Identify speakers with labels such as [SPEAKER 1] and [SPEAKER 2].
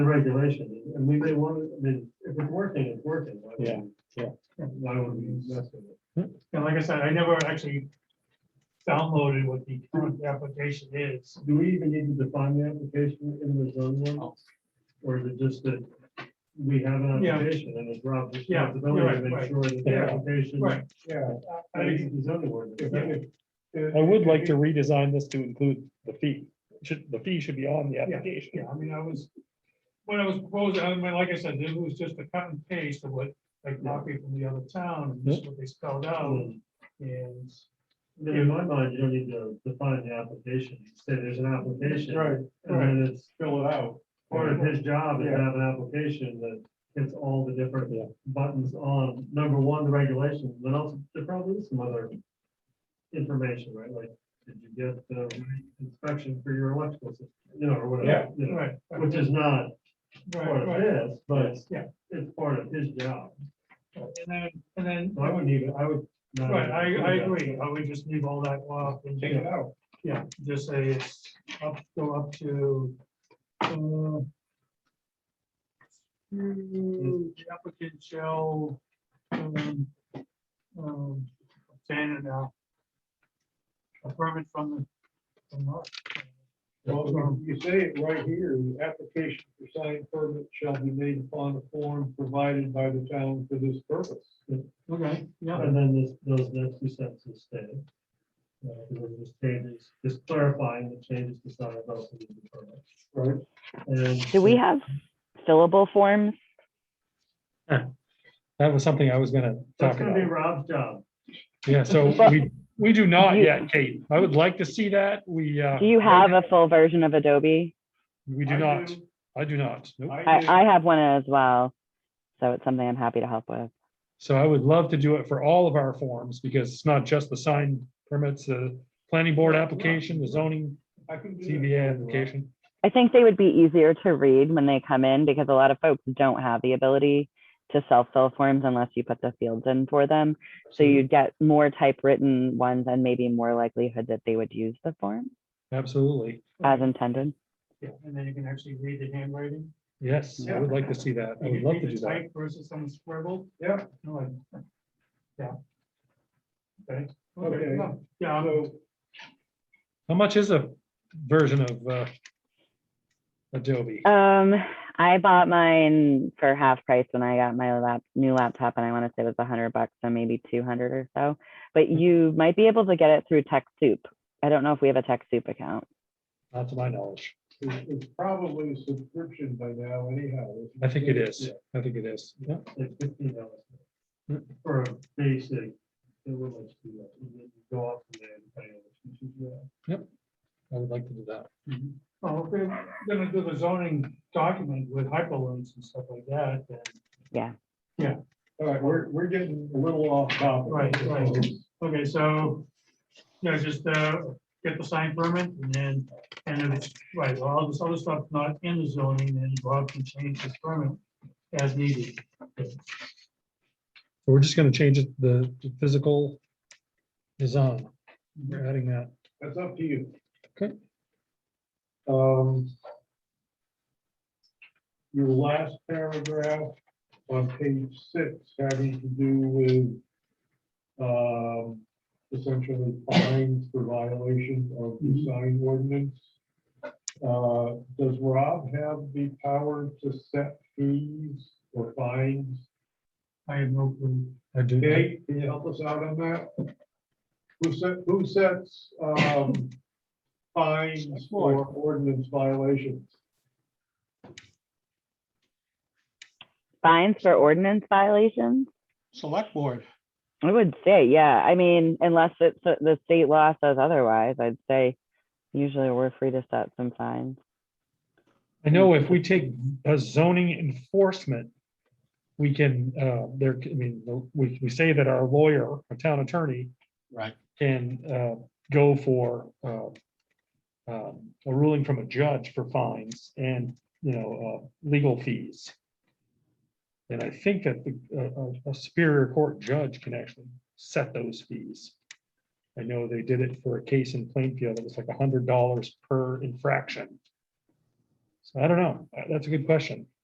[SPEAKER 1] regulation, and we may want, to- I mean, if it's working, it's working. Why would
[SPEAKER 2] Yeah,
[SPEAKER 1] we-
[SPEAKER 2] yeah.
[SPEAKER 1] Why would we invest in it?
[SPEAKER 3] And like I said, I never actually downloaded what the current application is.
[SPEAKER 1] Do we even need to define the application in the zone
[SPEAKER 2] Oh.
[SPEAKER 1] one? Or is it just that we have an
[SPEAKER 3] Yeah.
[SPEAKER 1] application and it's Rob's
[SPEAKER 3] Yeah,
[SPEAKER 1] responsibility
[SPEAKER 3] you're
[SPEAKER 1] to
[SPEAKER 3] right,
[SPEAKER 1] make
[SPEAKER 3] right.
[SPEAKER 1] sure that the
[SPEAKER 3] Yeah.
[SPEAKER 1] application.
[SPEAKER 3] Right.
[SPEAKER 4] Yeah. I- I
[SPEAKER 1] meets
[SPEAKER 4] think
[SPEAKER 1] the zoning ordinance?
[SPEAKER 4] if you could-
[SPEAKER 2] I would like to redesign this to include the fee. Should, the fee should be on the
[SPEAKER 3] Yeah,
[SPEAKER 2] application.
[SPEAKER 3] I mean, I was, when I was proposing, I mean, like I said, this was just a cut and paste of what, like, copy from the other town, and this is what they spelled out,
[SPEAKER 1] Um,
[SPEAKER 3] and.
[SPEAKER 1] I mean, In my mind, you don't need to define the application, You say there's an application.
[SPEAKER 4] Right,
[SPEAKER 1] And then it's
[SPEAKER 4] fill it out.
[SPEAKER 1] part of his job is to
[SPEAKER 4] Yeah.
[SPEAKER 1] have an application that hits all the different
[SPEAKER 2] Yeah.
[SPEAKER 1] buttons on, number one, the regulations, but also there probably is some other information, right? Like, did you get the inspection for your electrical system, you know, or
[SPEAKER 4] Yeah.
[SPEAKER 1] whatever, you know,
[SPEAKER 3] Right, right,
[SPEAKER 1] which is not part of
[SPEAKER 3] right,
[SPEAKER 1] this, but it's,
[SPEAKER 3] Yeah.
[SPEAKER 1] it's part of his job.
[SPEAKER 3] right. And then, and then,
[SPEAKER 1] So I wouldn't even, I would. not
[SPEAKER 3] right, I,
[SPEAKER 1] even
[SPEAKER 3] I
[SPEAKER 1] include that.
[SPEAKER 3] agree, I would just leave all that off and
[SPEAKER 4] Take
[SPEAKER 3] just,
[SPEAKER 4] it out.
[SPEAKER 3] yeah, just say it's up, go up to. uh, Mm, The applicant shall. um, um, Obtain an, uh, a permit from the. from the-
[SPEAKER 4] Well, you- you say it right here, the application for sign permit shall be made upon a form provided by the town for this purpose.
[SPEAKER 3] Okay, yeah,
[SPEAKER 1] And then this, those next two sentences stay. Uh, because it just changes, just clarifying the changes to sign about the permit. Right.
[SPEAKER 5] Do we have fillable forms?
[SPEAKER 2] That was something I was gonna
[SPEAKER 1] That's
[SPEAKER 2] talk
[SPEAKER 1] gonna be
[SPEAKER 2] about.
[SPEAKER 1] Rob's job.
[SPEAKER 2] Yeah, so
[SPEAKER 5] But-
[SPEAKER 2] we, we do not
[SPEAKER 5] You-
[SPEAKER 2] yet, Kate. I would like to see that. We, uh.
[SPEAKER 5] Do you
[SPEAKER 2] right
[SPEAKER 5] have a
[SPEAKER 2] now,
[SPEAKER 5] full version of Adobe?
[SPEAKER 2] We do
[SPEAKER 4] I
[SPEAKER 2] not.
[SPEAKER 4] do-
[SPEAKER 2] I do not. Nope.
[SPEAKER 5] I,
[SPEAKER 4] do.
[SPEAKER 5] I have one as well. So it's something I'm happy to help with.
[SPEAKER 2] So I would love to do it for all of our forms because it's not just the sign permits, the planning board application, the zoning,
[SPEAKER 4] I can do that.
[SPEAKER 2] CBA application.
[SPEAKER 5] I think they would be easier to read when they come in because a lot of folks don't have the ability to self-fill forms unless you put the fields in for them. So you'd get more typewritten ones and maybe more likelihood that they would use the form
[SPEAKER 2] Absolutely.
[SPEAKER 5] as intended.
[SPEAKER 3] yeah, and then you can actually read the handwriting.
[SPEAKER 2] Yes, I would like to see that. I
[SPEAKER 3] You
[SPEAKER 2] would
[SPEAKER 3] can
[SPEAKER 2] love
[SPEAKER 3] read
[SPEAKER 2] to
[SPEAKER 3] the
[SPEAKER 2] do that.
[SPEAKER 3] type Versus some scribble.
[SPEAKER 4] Yeah.
[SPEAKER 3] No, I- Yeah. Okay.
[SPEAKER 4] Okay.
[SPEAKER 3] no, Yeah, I'm-
[SPEAKER 4] So,
[SPEAKER 2] How much is a version of uh, Adobe?
[SPEAKER 5] Um, I bought mine for half price when I got my lap, new laptop and I want to say it was a hundred bucks, so maybe 200 or so. But
[SPEAKER 6] Mm-hmm.
[SPEAKER 5] you might be able to get it through TechSoup. I don't know if we have a TechSoup account.
[SPEAKER 2] Not to my knowledge.
[SPEAKER 4] it's it's probably a subscription by now anyhow. isn't
[SPEAKER 2] I think it is. I think it is. Yeah.
[SPEAKER 1] Like fifteen
[SPEAKER 2] Hmm.
[SPEAKER 1] dollars. For a basic. it would let you do that. You get- you Go off from there. and pay it. You should do that.
[SPEAKER 2] I would like to do that.
[SPEAKER 3] Well, Oh, if we're gonna do the zoning document with hyperlinks and stuff like that, then,
[SPEAKER 4] All right, we're, we're getting a little off topic.
[SPEAKER 3] Right, right. okay, so, yeah, just, uh, get the sign permit and then, and if it's, right, well, all this other stuff not in the zoning, then Bob can change his permit as needed.
[SPEAKER 2] So We're just going to change it, the the physical design. We're adding that.
[SPEAKER 4] That's up to you.
[SPEAKER 2] Okay.
[SPEAKER 4] Um. Your last paragraph on page six having to do with. Um, essentially fines for violation of the sign ordinance. Uh, does Rob have the power to set fees or fines?
[SPEAKER 3] I have no clue.
[SPEAKER 2] I do.
[SPEAKER 4] Kate, can you help us out on that? Who set, who sets, um, fines for ordinance violations?
[SPEAKER 5] Fines for ordinance violations?
[SPEAKER 6] Select Board.
[SPEAKER 5] I would say, yeah. I mean, unless it's the the state law says otherwise, I'd say usually we're free to set some fines.
[SPEAKER 2] I know if we take a zoning enforcement, we can, uh, there, I mean, we, we say that our lawyer, our town attorney,
[SPEAKER 6] Right.
[SPEAKER 2] can uh, go for uh, um, a ruling from a judge for fines and, you know, uh, legal fees. And I think that the- uh, a- a a Superior Court judge can actually set those fees. I know they did it for a case in Plainfield. It was like a hundred dollars per infraction. So I don't know. Uh, That's a good question.